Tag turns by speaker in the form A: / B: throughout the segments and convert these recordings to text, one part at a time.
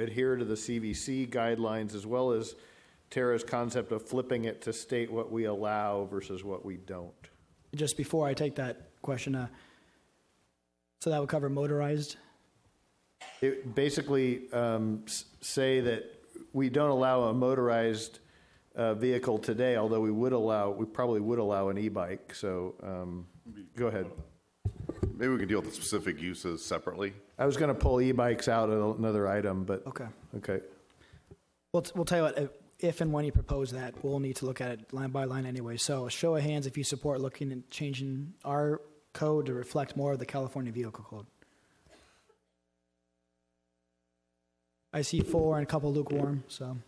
A: adhere to the CVC guidelines as well as Tara's concept of flipping it to state what we allow versus what we don't.
B: Just before I take that question, uh, so that would cover motorized?
A: It basically um, s- say that we don't allow a motorized uh, vehicle today, although we would allow, we probably would allow an e-bike, so um, go ahead.
C: Maybe we can deal with the specific uses separately.
A: I was going to pull e-bikes out of another item, but,
B: Okay.
A: okay.
B: We'll, we'll tell you what, if- if and when you propose that, we'll need to look at it line by line anyway. So a show of hands if you support looking and changing our code to reflect more of the California Vehicle Code. I see four and a couple lukewarm, so.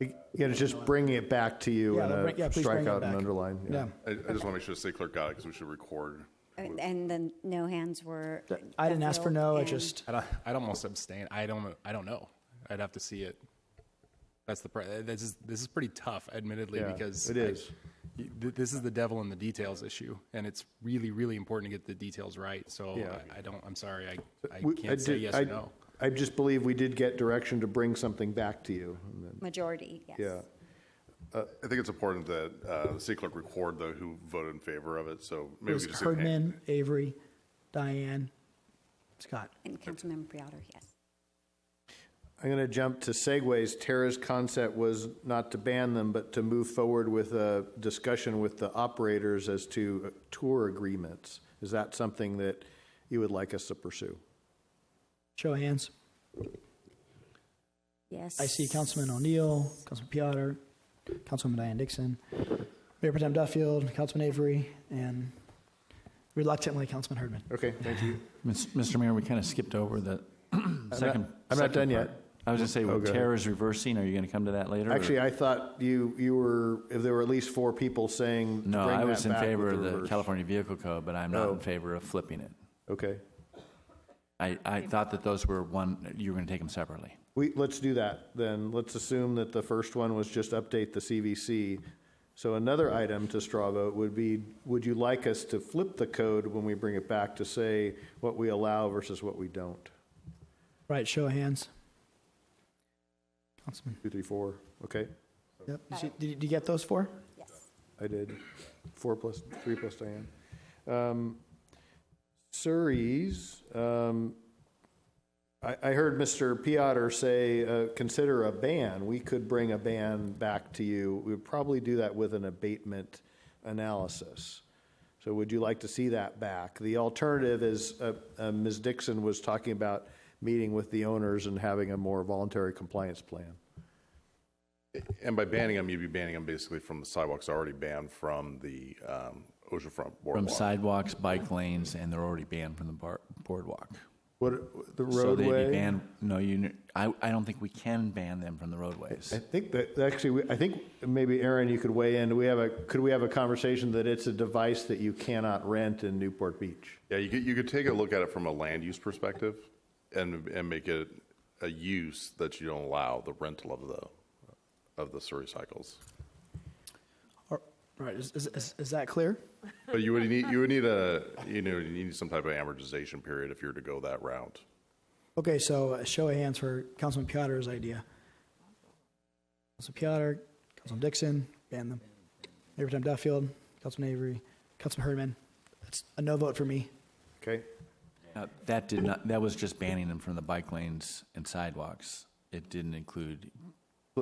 A: Yeah, to just bring it back to you
B: Yeah,
A: and
B: bring- yeah,
A: uh,
B: please bring
A: strike
B: it
A: out and
B: back.
A: underline.
B: Yeah,
C: I, I just want to make sure the city clerk got it because we should record.
D: And and then no hands were.
B: I didn't ask for no, I
D: and-
B: just,
E: I'd, I'd almost abstain. I don't. I don't know. I'd have to see it. That's the. pri- This is this is pretty tough, admittedly,
A: Yeah,
E: because
A: it
E: I-
A: is.
E: y- th- this is the devil in the details issue, and it's really, really important to get the details right. So
A: Yeah.
E: I, I don't. I'm sorry. I, I
A: We-
E: can't say
A: did-
E: yes
A: I-
E: or no.
A: I just believe we did get direction to bring something back to you. and then-
D: Majority, yes.
A: Yeah.
C: I think it's important that uh, the city clerk record though who voted in favor of it.
B: it
C: So maybe we
B: was
C: could just. say hand-
B: Herdman, Avery, Diane, Scott.
D: And Councilmember Piotr, yes.
A: I'm going to jump to segues. Tara's concept was not to ban them, but to move forward with a discussion with the operators as to uh, tour agreements. Is that something that you would like us to pursue?
B: Show of hands.
D: Yes.
B: I see Councilman O'Neill, Councilman Piotr, Councilwoman Diane Dixon, Mayor Protem Duffield, Councilman Avery, and reluctantly Councilman Herdman.
A: Okay, thank you.
F: Mis- Mr. Mayor, we kind of skipped over the second.
A: I'm not
F: second
A: done
F: part.
A: yet.
F: I was going to say,
A: Oh,
F: with
A: go ahead.
F: terror's reversing, are you going to come to that later? or-
A: Actually, I thought you, you were, if there were at least four people saying. to
F: No,
A: bring
F: I
A: that
F: was in
A: back with
F: favor of the
A: reverse.
F: California Vehicle Code, but I'm not
A: Oh.
F: in favor of flipping it.
A: Okay.
F: I, I thought that those were one, you were going to take them separately.
A: We, let's do that, then. Let's assume that the first one was just update the CVC. So another item to straw vote would be, would you like us to flip the code when we bring it back to say what we allow versus what we don't?
B: Right, show of hands. Councilman,
A: Two, three, four, okay?
B: yep, you see- did you- did you get those four?
D: Yes.
A: I did. Four plus, three plus Diane. Um, Surrey's, um, I, I heard Mr. Piotr say, uh, consider a ban. We could bring a ban back to you. We would probably do that with an abatement analysis. So would you like to see that back? The alternative is, uh, uh, Ms. Dixon was talking about meeting with the owners and having a more voluntary compliance plan.
C: And by banning them, you'd be banning them basically from the sidewalks already banned from the um, oceanfront
F: From
C: boardwalk.
F: sidewalks, bike lanes, and they're already banned from the bar- boardwalk.
A: What, the
F: So they'd be
A: roadway?
F: banned- No, you, kn- I, I don't think we can ban them from the roadways.
A: I think that, actually, we- I think maybe, Aaron, you could weigh in. Do we have a, could we have a conversation that it's a device that you cannot rent in Newport Beach?
C: Yeah, you could, you could take a look at it from a land use perspective and, and make it a use that you don't allow the rental of the, of the Surrey cycles.
B: Or- Right, is, is- is, is that clear?
C: But you would need, you would need a, you know, you need some type of amortization period if you were to go that route.
B: Okay, so a show of hands for Councilman Piotr's idea. Councilman Piotr, Councilman Dixon, ban them. Mayor Protem Duffield, Councilman Avery, Councilman Herdman. That's a no vote for me.
A: Okay?
F: Uh, That did not, that was just banning them from the bike lanes and sidewalks. It didn't include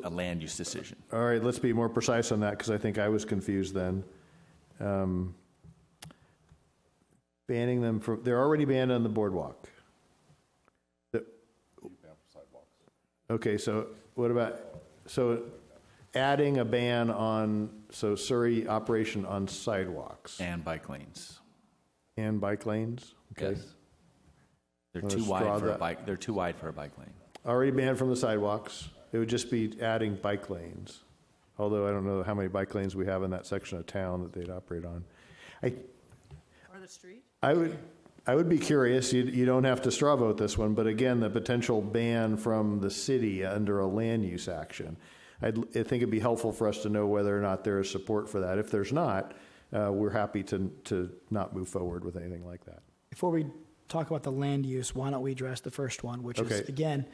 F: a land use decision.
A: All right, let's be more precise on that, because I think I was confused then. Um, Banning them from, they're already banned on the boardwalk. The- Okay, so what about, so adding a ban on, so Surrey operation on sidewalks
F: And bike lanes.
A: and bike lanes? Okay.
F: Yes. They're
A: Wanna
F: too
A: straw
F: wide for a
A: that?
F: bike, they're too wide for a bike lane.
A: Already banned from the sidewalks. It would just be adding bike lanes. Although I don't know how many bike lanes we have in that section of town that they'd operate on. I,
G: Or the street?
A: I would, I would be curious, you, you don't have to straw vote this one, but again, the potential ban from the city under a land use action. I'd, I think it'd be helpful for us to know whether or not there is support for that. If there's not, uh, we're happy to, to not move forward with anything like that.
B: Before we talk about the land use, why don't we address the first one, which is,
A: Okay.
B: again,